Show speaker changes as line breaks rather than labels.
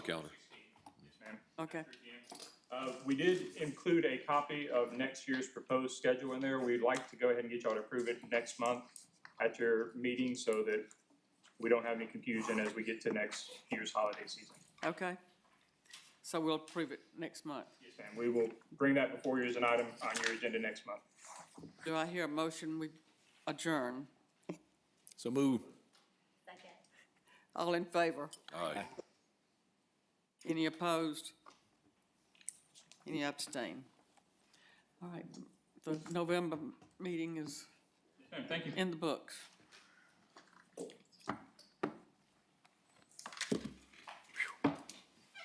Calendar.
Okay,
Uh, We did include a copy of next year's proposed schedule in there. We'd like to go ahead and get y'all to approve it next month at your meeting so that we don't have any confusion as we get to next year's holiday season.
okay. So we'll approve it next month.
Yes, ma'am. We will bring that before you as an item on your agenda next month.
Do I hear a motion we adjourn?
So move.
All in favor?
Aye.
Any opposed? Any abstain? All right, the November meeting is
Thank you.
in the books.